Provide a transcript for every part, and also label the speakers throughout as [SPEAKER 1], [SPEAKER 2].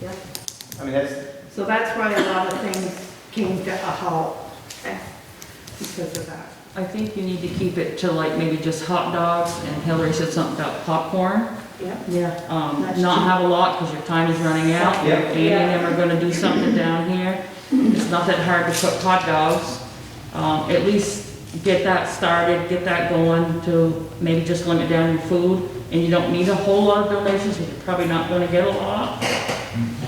[SPEAKER 1] Yep.
[SPEAKER 2] I mean, that's,
[SPEAKER 1] So that's why a lot of things came to a halt
[SPEAKER 3] Okay.
[SPEAKER 1] because of that.
[SPEAKER 4] I think you need to keep it to like maybe just hot dogs, and Hillary said something about popcorn.
[SPEAKER 3] Yeah.
[SPEAKER 1] Yeah.
[SPEAKER 4] Um,
[SPEAKER 1] That's
[SPEAKER 4] not
[SPEAKER 1] true.
[SPEAKER 4] have a lot, because your time is running out.
[SPEAKER 2] Yeah.
[SPEAKER 4] Andy and them are gonna do something down here. It's not that hard to cook hot dogs. Um, at least get that started, get that going to maybe just limit down your food. And you don't need a whole lot of donations, because you're probably not gonna get a lot.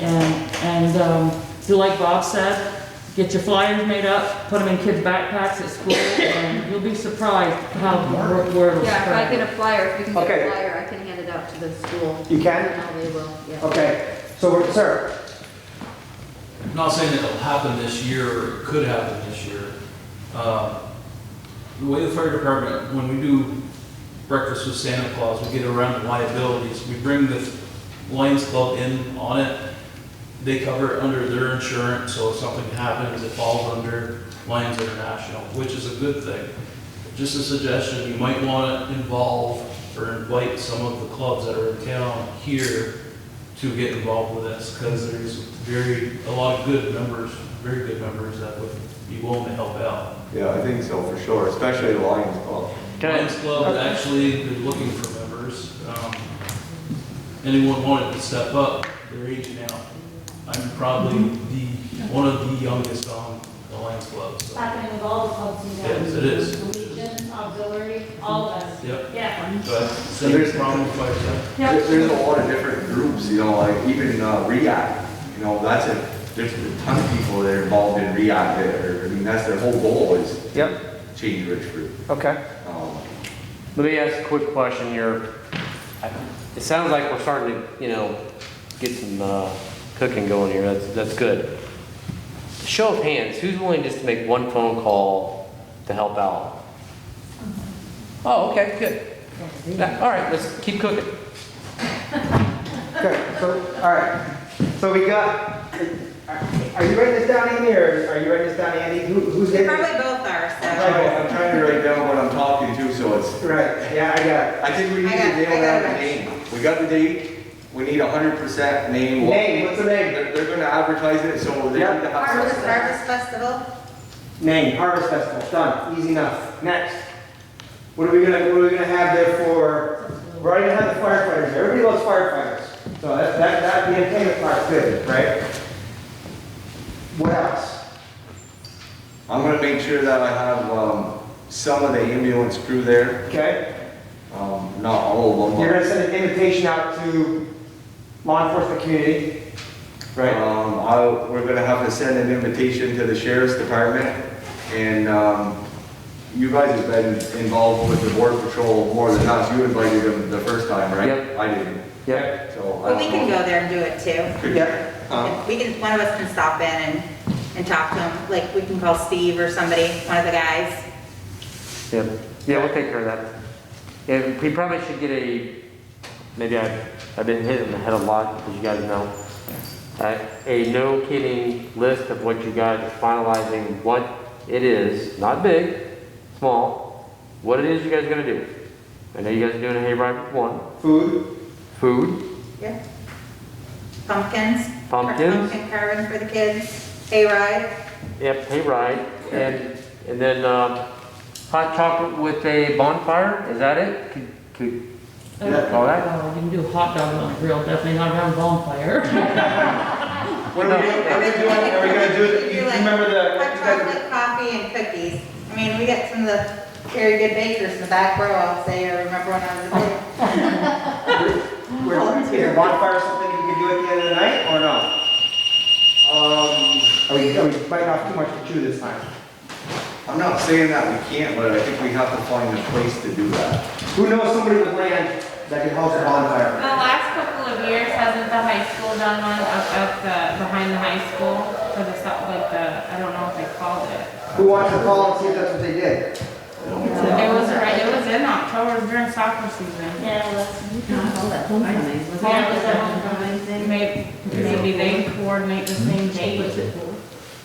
[SPEAKER 4] And, and, um, do like Bob said, get your flyers made up, put them in kids' backpacks at school, and you'll be surprised how word word will
[SPEAKER 3] Yeah, if I
[SPEAKER 4] spread.
[SPEAKER 3] get a flyer, if you can get
[SPEAKER 2] Okay.
[SPEAKER 3] a flyer, I can hand it out to the school.
[SPEAKER 2] You can?
[SPEAKER 3] And they will, yeah.
[SPEAKER 2] okay, so, we're- sir,
[SPEAKER 5] I'm not saying it'll happen this year, or it could happen this year. Uh, The way the fire department, when we do breakfast with Santa Claus, we get around the liabilities. We bring the Lions Club in on it. They cover it under their insurance, so if something happens, it falls under Lions International, which is a good thing. Just a suggestion, you might want to involve or invite some of the clubs that are in town here to get involved with this, because there's very, a lot of good members, very good members that would be willing to help out.
[SPEAKER 6] Yeah, I think so, for sure, especially the Lions Club.
[SPEAKER 2] Can I-
[SPEAKER 5] Lions Club actually been looking for members. Um, Anyone wanted to step up, they're aging out. I'm probably the, one of the youngest on the Lions Club, so.
[SPEAKER 7] happening with all the clubs in town.
[SPEAKER 5] Yes, it is.
[SPEAKER 7] The Legion, auxiliary, all of us.
[SPEAKER 5] Yep,
[SPEAKER 7] Yeah.
[SPEAKER 5] but same
[SPEAKER 6] There's-
[SPEAKER 5] problem with Firestone.
[SPEAKER 6] There- There's a lot of different groups, you know, like even uh, React, you know, that's a, there's a ton of people that are involved in React there. I mean, that's their whole goal is
[SPEAKER 2] yep,
[SPEAKER 6] change Richford.
[SPEAKER 2] okay.
[SPEAKER 6] Um,
[SPEAKER 8] Let me ask a quick question here. I- It sounds like we're starting to, you know, get some uh, cooking going here. That's, that's good. Show of hands, who's willing just to make one phone call to help out? Oh, okay, good. Yeah, All right, let's keep cooking.
[SPEAKER 2] Okay, so, all right, so we got, are you writing this down, Amy, or are you writing this down, Andy? Who- Who's getting it?
[SPEAKER 3] both are,
[SPEAKER 6] I'm trying to- I'm trying to write down what I'm talking to, so it's,
[SPEAKER 2] Right, yeah, I got
[SPEAKER 6] I think we need
[SPEAKER 3] I
[SPEAKER 6] to
[SPEAKER 3] got- I
[SPEAKER 6] nail
[SPEAKER 3] got
[SPEAKER 6] down
[SPEAKER 3] it.
[SPEAKER 6] the name. We got the date, we need hundred percent
[SPEAKER 2] it.
[SPEAKER 6] name. what-
[SPEAKER 2] Name, what's the name?
[SPEAKER 6] They're, they're gonna advertise it, so they need
[SPEAKER 2] Yeah.
[SPEAKER 6] to have something.
[SPEAKER 3] Festival.
[SPEAKER 2] Name, Harvest Festival, done, easy enough. Next. What are we gonna, what are we gonna have there for, we're already gonna have the firefighters, everybody loves firefighters. So that, that, that, the entertainment part's good, right? What else?
[SPEAKER 6] I'm gonna make sure that I have, um, some of the ambulance crew there,
[SPEAKER 2] Okay?
[SPEAKER 6] um, not all of them. but-
[SPEAKER 2] You're gonna send an invitation out to law enforcement community, right?
[SPEAKER 6] Um, I, we're gonna have to send an invitation to the sheriff's department, and, um, you guys have been involved with the border patrol more than us, you invited them the first time, right?
[SPEAKER 8] Yep.
[SPEAKER 6] I didn't,
[SPEAKER 8] Yep.
[SPEAKER 6] so. I
[SPEAKER 9] Well, we
[SPEAKER 6] don't
[SPEAKER 9] can
[SPEAKER 6] know.
[SPEAKER 9] go there and do it too.
[SPEAKER 2] Yeah,
[SPEAKER 6] Huh?
[SPEAKER 9] We can, one of us can stop in and, and talk to him, like, we can call Steve or somebody, one of the guys.
[SPEAKER 8] Yep. Yeah, we'll take care of that. Yeah, we probably should get a, maybe I, I've been hitting the head a lot, as you guys know. Uh, A no kidding list of what you guys are finalizing, what it is, not big, small, what it is you guys are gonna do. I know you guys are doing a hayride with one,
[SPEAKER 2] food,
[SPEAKER 8] food,
[SPEAKER 9] Yeah. Pumpkins.
[SPEAKER 8] Pumpkins.
[SPEAKER 9] Pumpkin carving for the kids, hayride.
[SPEAKER 8] yep, hayride, and, and then, um, hot chocolate with a bonfire, is that it? Could- could-
[SPEAKER 4] Uh,
[SPEAKER 8] All right.
[SPEAKER 4] well, You can do hot dogs on a grill, definitely not around a bonfire.
[SPEAKER 2] what are we doing, what are we doing, are we gonna do, it- you you remember the,
[SPEAKER 9] Hot chocolate, coffee, and cookies. I mean, we got some of the very good bakers in the back row, I'll say, I remember when I was a kid.
[SPEAKER 2] where- is a bonfire something you can do at the end of the night, or no? Um, are we, are we biting off too much to chew this time?
[SPEAKER 6] I'm not saying that we can't, but I think we have to find a place to do that.
[SPEAKER 2] Who knows somebody with land that can host a
[SPEAKER 7] The
[SPEAKER 2] bonfire?
[SPEAKER 7] last couple of years, hasn't the high school done one up, up the, behind the high school for the, so- like the, I don't know what they called it.
[SPEAKER 2] Who wants to call and see if that's what they did?
[SPEAKER 7] It was, right- it was in October during soccer season.
[SPEAKER 1] Yeah,
[SPEAKER 3] All that homecoming, was
[SPEAKER 7] Yeah, it
[SPEAKER 3] it?
[SPEAKER 7] was a homecoming thing. Maybe, maybe they coordinate the same date.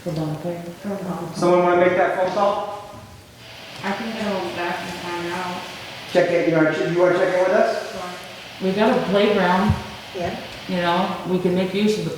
[SPEAKER 4] For bonfire.
[SPEAKER 2] Someone wanna make that phone call?
[SPEAKER 7] I can go back and find out.
[SPEAKER 2] Check it, you know, you wanna check in with us?
[SPEAKER 4] We got a playground,
[SPEAKER 9] Yeah.
[SPEAKER 4] you know, we can make use of the